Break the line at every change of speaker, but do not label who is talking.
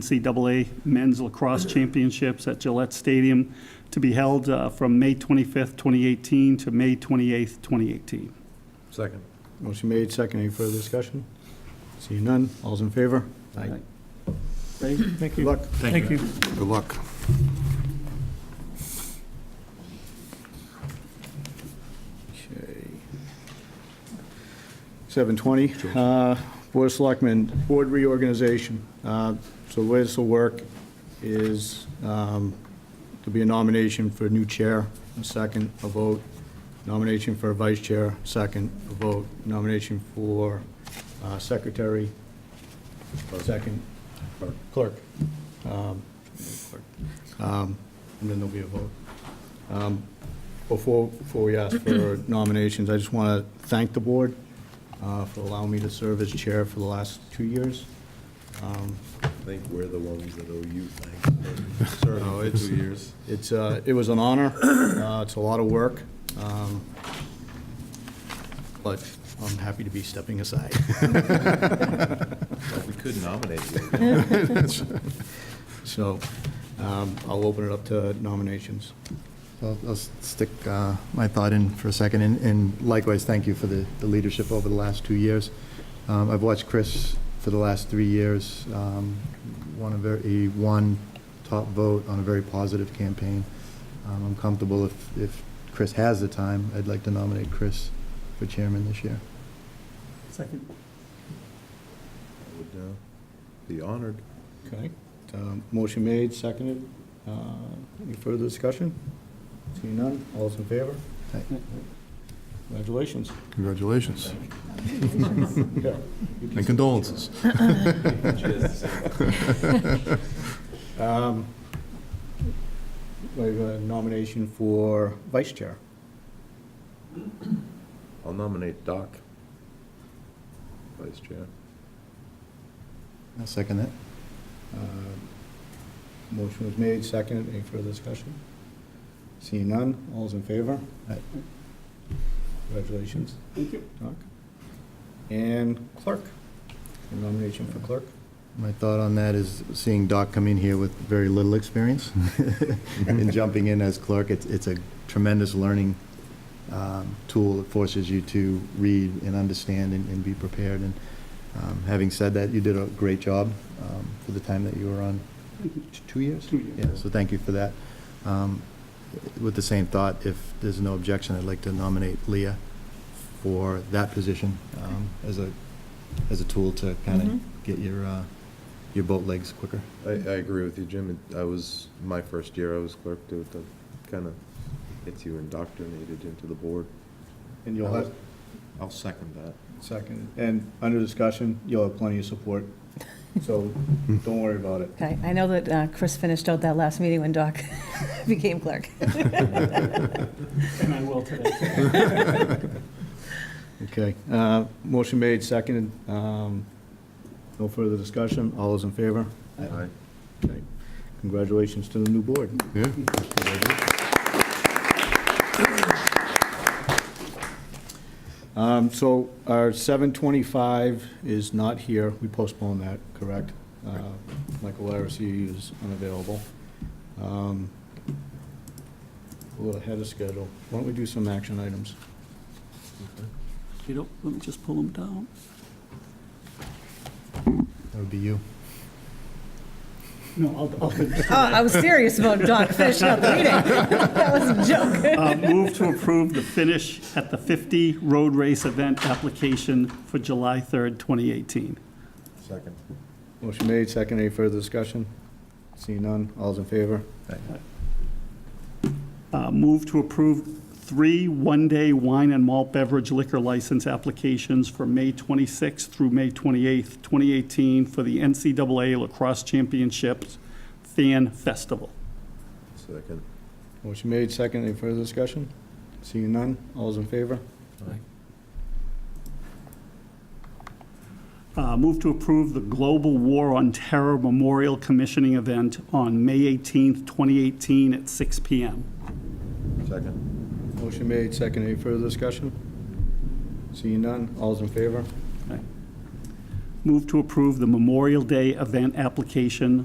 NCAA Men's Lacrosse Championships at Gillette Stadium to be held uh, from May 25th, 2018 to May 28th, 2018.
Second.
Motion made, second. Any further discussion? Seeing none. All's in favor? Aye.
Thank
Good luck.
Thank you.
Good luck. Okay. 720, uh, Board of Selectmen, Board reorganization. Uh, So the way this will work is um, there'll be a nomination for a new chair, a second, a vote, nomination for a vice chair, second, a vote, nomination for uh, secretary, second, clerk. Um, clerk. Um, And then there'll be a vote. Um, Before, before we ask for nominations, I just want to thank the board uh, for allowing me to serve as chair for the last two years. Um,
I think we're the ones that owe you thanks for
No,
serving for
it's-
two years.
It's, uh, it was an honor. Uh, It's a lot of work. um, But I'm happy to be stepping aside.
Well, We could nominate you.
So um, I'll open it up to nominations.
I'll I'll stick uh, my thought in for a second, and- and likewise, thank you for the the leadership over the last two years. Um, I've watched Chris for the last three years, um, won a very, he won top vote on a very positive campaign. Um, I'm comfortable if, if Chris has the time, I'd like to nominate Chris for chairman this year.
Second.
I would, uh, Be honored.
Okay. Um, Motion made, seconded. Uh, Any further discussion? Seeing none, all's in favor?
Aye.
Congratulations.
Congratulations
Yeah.
and condolences.
Um, We have a nomination for vice chair.
I'll nominate Doc, Vice Chair.
I'll second that.
Uh, Motion was made, seconded. Any further discussion? Seeing none, all's in favor?
Aye.
Congratulations. Doc. And clerk. A Nomination for clerk.
My thought on that is seeing Doc come in here with very little experience and jumping in as clerk, it's, it's a tremendous learning um, tool. It forces you to read and understand and, and be prepared. And um, having said that, you did a great job um, for the time that you were on. T- Two years?
Two years.
Yeah, so thank you for that. Um, With the same thought, if there's no objection, I'd like to nominate Leah for that position um, as a, as a tool to kind
Mhm.
of get your, uh, your boat legs quicker.
I, I agree with you, Jim. It- I was, my first year I was clerk, too. It kind of gets you indoctrinated into the board.
And you'll have,
I'll second that.
seconded. And under discussion, you'll have plenty of support, so don't worry about it.
Okay, I know that uh, Chris finished out that last meeting when Doc became clerk.
And I will today.
Okay, uh, motion made, seconded. Um, No further discussion. All those in favor?
Aye.
Okay. Congratulations to the new board.
Yeah,
Um, So our 725 is not here. We postponed that, correct? Uh, Michael Larissy is unavailable. Um, We're ahead of schedule. Why don't we do some action items?
You know, let me just pull them down.
That would be you.
No, I'll- I'll finish.
Oh, I was serious about Doc finishing out the meeting. That was a joke.
Uh, Move to approve the finish at the 50 road race event application for July 3rd, 2018.
Second.
Motion made, second. Any further discussion? Seeing none. All's in favor?
Uh, Move to approve three one-day wine and malt beverage liquor license applications for May 26th through May 28th, 2018 for the NCAA Lacrosse Championships Fan Festival.
Second.
Motion made, second. Any further discussion? Seeing none. All's in favor?
Uh, Move to approve the Global War on Terror Memorial Commissioning Event on May 18th, 2018 at 6 PM.
Second.
Motion made, second. Any further discussion? Seeing none. All's in favor?
Move to approve the Memorial Day event application